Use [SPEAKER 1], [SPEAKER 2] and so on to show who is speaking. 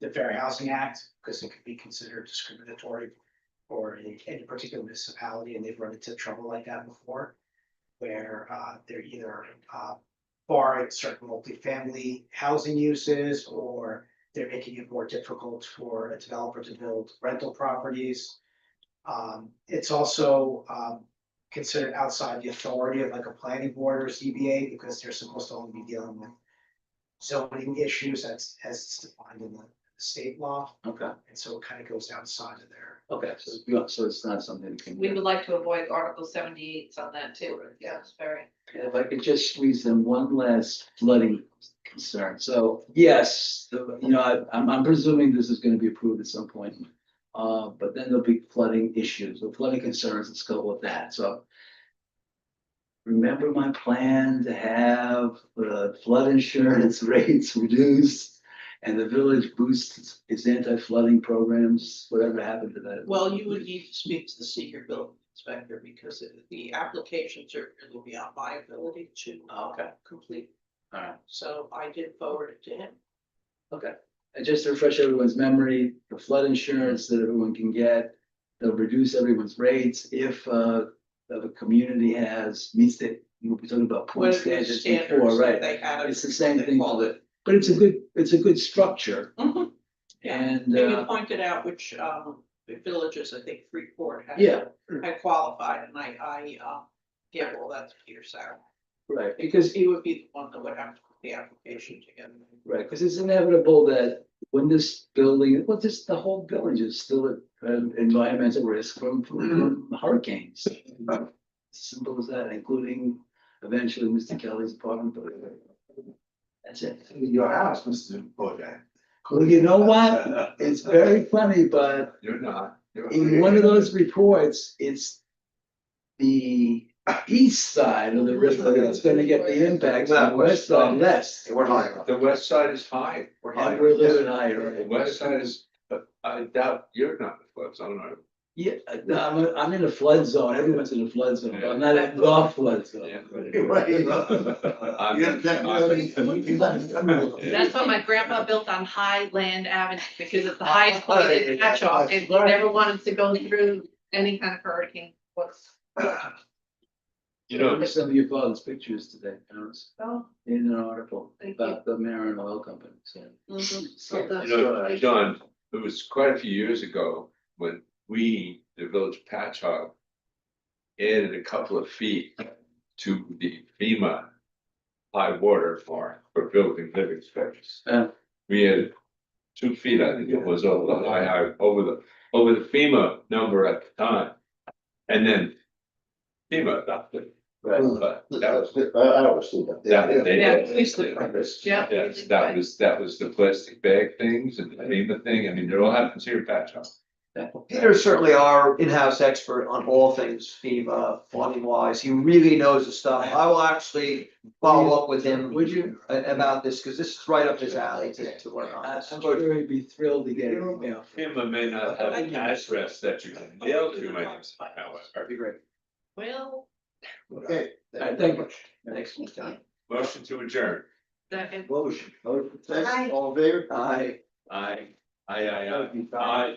[SPEAKER 1] the Fair Housing Act, because it could be considered discriminatory for a- any particular municipality, and they've run into trouble like that before, where uh, they're either uh, barring certain multifamily housing uses, or they're making it more difficult for a developer to build rental properties. Um, It's also um, considered outside the authority of like a planning board or CBA, because they're supposed to only be dealing with zoning issues as, as it's defined in the state law,
[SPEAKER 2] Okay,
[SPEAKER 1] and so it kind of goes outside of there.
[SPEAKER 2] okay, so you, so it's not something that can.
[SPEAKER 3] We would like to avoid Article seventy-eight on that too, yeah, it's very.
[SPEAKER 2] If I could just squeeze in one last flooding concern, so yes, the, you know, I- I'm, I'm presuming this is gonna be approved at some point. Uh, but then there'll be flooding issues, or flooding concerns that go with that, so. Remember my plan to have uh, flood insurance rates reduced? And the village boosts its anti-flooding programs, whatever happened to that?
[SPEAKER 4] Well, you would need to speak to the senior building inspector because it- the applications are, it will be on my ability to. uh,
[SPEAKER 2] Okay.
[SPEAKER 4] Complete.
[SPEAKER 2] Alright.
[SPEAKER 4] So I did forward it to him.
[SPEAKER 2] And just to refresh everyone's memory, the flood insurance that everyone can get, they'll reduce everyone's rates if uh. If a community has, meets the, we were talking about
[SPEAKER 4] What
[SPEAKER 2] point
[SPEAKER 4] are the
[SPEAKER 2] standards
[SPEAKER 4] standards
[SPEAKER 2] before,
[SPEAKER 4] that
[SPEAKER 2] right?
[SPEAKER 4] they had?
[SPEAKER 2] It's the same
[SPEAKER 4] they
[SPEAKER 2] thing,
[SPEAKER 4] called
[SPEAKER 2] but it's a good, it's a good structure
[SPEAKER 4] Mhm. Yeah,
[SPEAKER 2] and
[SPEAKER 4] and you
[SPEAKER 2] uh,
[SPEAKER 4] pointed out which um the villages, I think Freeport had.
[SPEAKER 2] yeah,
[SPEAKER 4] Had qualified and I I uh gave all that to Peter Sauer.
[SPEAKER 2] right,
[SPEAKER 4] Because he would be the one that would have to put the application together.
[SPEAKER 2] right, because it's inevitable that. When this building, well, this, the whole village is still at uh, environmental risk from
[SPEAKER 4] Mm-hmm.
[SPEAKER 2] from hurricanes. Simple as that, including eventually Mr. Kelly's apartment. building. That's it.
[SPEAKER 5] Your house, Mr. Bojangles.
[SPEAKER 2] Well, you know what? It's very funny, but
[SPEAKER 5] You're not. You're-
[SPEAKER 2] in one of those reports, it's the east side of the river that's gonna get the impacts, the west side less.
[SPEAKER 5] We're higher. The west side is high. We're
[SPEAKER 2] And we're a little bit
[SPEAKER 5] The
[SPEAKER 2] higher.
[SPEAKER 5] west side is, but I doubt you're not the west, I don't know.
[SPEAKER 2] Yeah, no, I'm, I'm in a flood zone. Everyone's in a flood zone, but I'm not in the flood zone.
[SPEAKER 5] I'm-
[SPEAKER 3] That's why my grandpa built on High Land Avenue, because it's the highest point in catch off, and he never wanted to go through any kind of hurricane, what's.
[SPEAKER 5] You know,
[SPEAKER 2] Look at Some of your father's pictures today, Terrence,
[SPEAKER 3] Oh,
[SPEAKER 2] in an article
[SPEAKER 3] Thank you.
[SPEAKER 2] about the Marin Oil Company, so.
[SPEAKER 3] Mm-hmm. so the-
[SPEAKER 5] you know, John, it was quite a few years ago when we, the village patch hog. Added a couple of feet to the FEMA. High water for, for building living spaces.
[SPEAKER 2] Yeah.
[SPEAKER 5] We had two feet, I think it was, over the high, high, over the, over the FEMA number at the time. And then. FEMA adopted,
[SPEAKER 2] Right.
[SPEAKER 5] but that was,
[SPEAKER 6] I always do that.
[SPEAKER 5] that, they did.
[SPEAKER 3] Yeah, please look. Yeah.
[SPEAKER 5] Yes, that was, that was the plastic bag things and the FEMA thing, I mean, it all happens here at Patch House.
[SPEAKER 7] Peter's certainly our in-house expert on all things FEMA funding wise. He really knows the stuff. I will actually follow up with him
[SPEAKER 2] Would you?
[SPEAKER 7] a- about this, because this is right up his alley to, to work on.
[SPEAKER 2] I-
[SPEAKER 7] this.
[SPEAKER 2] I'm sure he'd be thrilled to get an email.
[SPEAKER 5] FEMA may not have an address that you can mail to, my name, however.
[SPEAKER 2] That'd be great.
[SPEAKER 3] Well,
[SPEAKER 6] Okay.
[SPEAKER 2] All right, thank you.
[SPEAKER 7] Thanks.
[SPEAKER 5] Motion to adjourn.
[SPEAKER 3] the,
[SPEAKER 6] Motion. Motion.
[SPEAKER 3] Aye.
[SPEAKER 6] All in favor?
[SPEAKER 7] Aye.
[SPEAKER 5] Aye, aye, aye, aye, aye.